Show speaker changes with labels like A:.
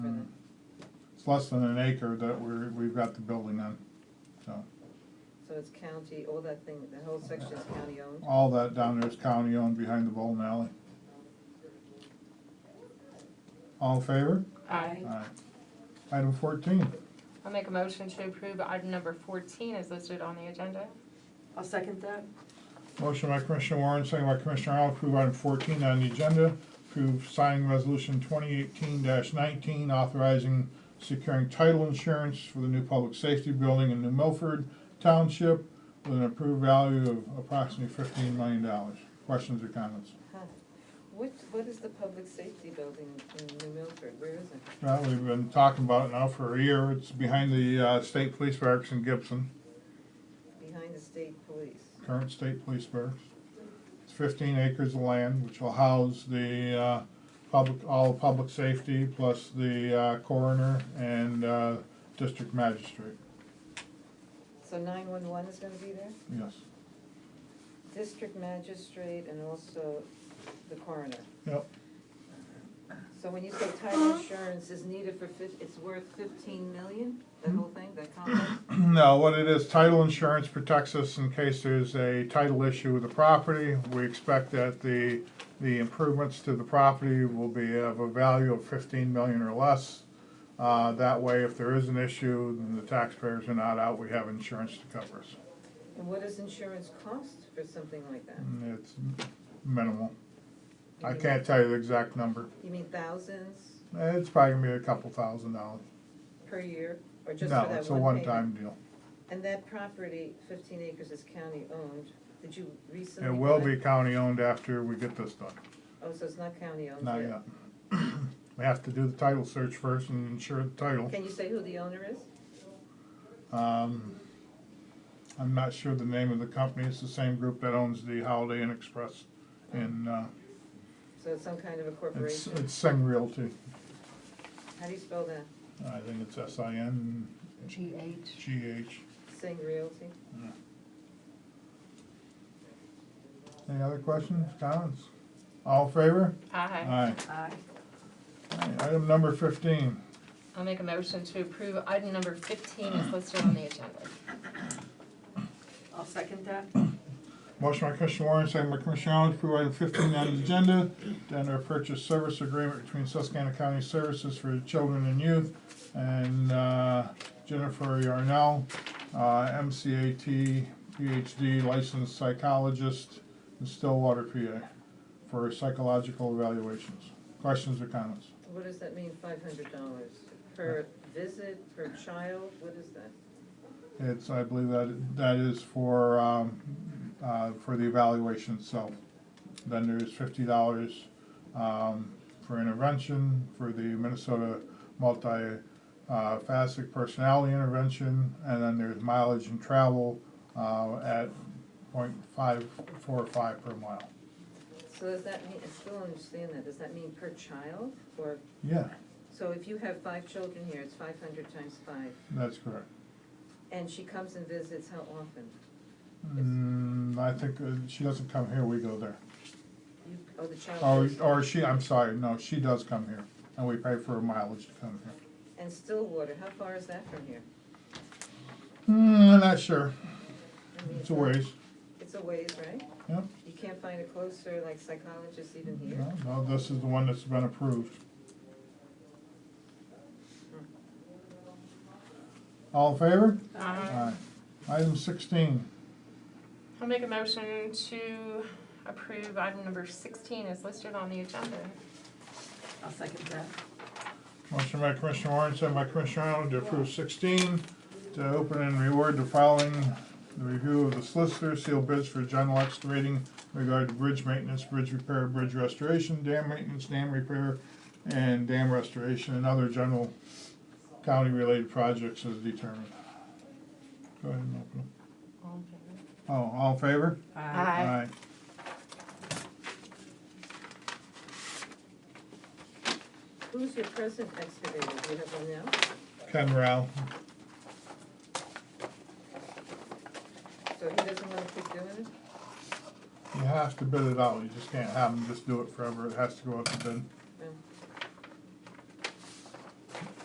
A: It's less than an acre that we're, we've got the building on, so.
B: So it's county, all that thing, the whole section is county owned?
A: All that down there is county owned behind the bowling alley. All in favor?
C: Aye.
A: Aye. Item fourteen,
D: I'll make a motion to approve item number fourteen is listed on the agenda.
C: I'll second that.
A: motion by Commissioner Warren, second by Commissioner Arnold, approve item fourteen on the agenda. Approve signing resolution twenty eighteen nineteen authorizing securing title insurance for the new public safety building in New Milford Township with an approved value of approximately fifteen million dollars. Questions or comments?
B: Huh. What, what is the public safety building in New Milford? Where is it?
A: Well, we've been talking about it now for a year. It's behind the uh, state police barracks in Gibson,
B: Behind the state police.
A: current state police barracks. It's fifteen acres of land, which will house the uh, public, all public safety, plus the uh, coroner and uh, district magistrate,
B: So nine-one-one is gonna be there?
A: yes.
B: District magistrate and also the coroner.
A: Yep,
B: So when you say title insurance is needed for fif, it's worth fifteen million, that whole thing, that complex?
A: no, what it is, title insurance protects us in case there's a title issue with the property. We expect that the, the improvements to the property will be of a value of fifteen million or less. Uh, that way, if there is an issue, then the taxpayers are not out, we have insurance to cover us.
B: And what does insurance cost for something like that?
A: And It's minimal. I
B: You mean-
A: can't tell you the exact number.
B: You mean thousands
A: Eh, It's probably gonna be a couple thousand dollars.
B: per year, or just for that one
A: No,
B: payment?
A: it's a one-time deal.
B: And that property, fifteen acres, is county-owned. Did you recently?
A: It will
B: buy-
A: be county-owned after we get this done.
B: Oh, so it's not county-owned
A: Not
B: yet.
A: yet. We have to do the title search first and ensure the title.
B: Can you say who the owner is?
A: Um, I'm not sure the name of the company. It's the same group that owns the Holiday Inn Express in, uh,
B: So it's some kind of a
A: it's, uh,
B: corporation?
A: it's Sing Realty.
B: How do you spell that?
A: I think it's S I N
C: G H.
A: G H.
B: Sing Realty?
A: Any other questions, comments? All in favor?
D: Aye.
A: Aye.
C: Aye.
A: Aye. Item number fifteen.
D: I'll make a motion to approve item number fifteen is listed on the agenda.
C: I'll second that.
A: Motion by Commissioner Warren, second by Commissioner Arnold, to approve item fifteen on the agenda, to enter a purchase service agreement between Susquehanna County Services for Children and Youth and uh, Jennifer Yarnell, uh, MCAT PhD licensed psychologist in Stillwater, PA, for psychological evaluations. Questions or comments?
B: What does that mean, five hundred dollars? Per
A: Uh,
B: visit, per child, what is that?
A: It's, I believe that, that is for, um, uh, for the evaluation itself. Then there's fifty dollars, um, for intervention, for the Minnesota multi, uh, facet personality intervention, and then there's mileage and travel, uh, at point five, four or five per mile.
B: So does that mean, I still don't understand that, does that mean per child? Or,
A: Yeah,
B: so if you have five children here, it's five hundred times five,
A: that's correct.
B: and she comes and visits how often?
A: Mm, I think uh, she doesn't come here, we go there.
B: You, oh, the child.
A: Or,
B: goes-
A: or she, I'm sorry, no, she does come here, and we pay for her mileage to come here.
B: And Stillwater, how far is that from here?
A: Mm, I'm not sure.
B: I mean,
A: It's a ways.
B: It's a ways, right?
A: Yep.
B: You can't find a closer, like psychologist even here?
A: No, no, this is the one that's been approved. All in favor?
D: Aye.
A: Aye. Item sixteen,
D: I'll make a motion to approve item number sixteen is listed on the agenda.
C: I'll second that.
A: motion by Commissioner Warren, second by Commissioner Arnold to approve sixteen, to open and reward the following, the review of the solicitor, seal bids for general excavating regard to bridge maintenance, bridge repair, bridge restoration, dam maintenance, dam repair, and dam restoration, and other general county-related projects as determined. Go ahead and open them.
D: All in favor?
A: Oh, all in favor?
D: Aye.
B: Who's your present excavator? Do you have one now?
A: Ken Rowell.
B: So he doesn't want to keep doing it?
A: You have to bid it out, you just can't have them just do it forever, it has to go out to bid.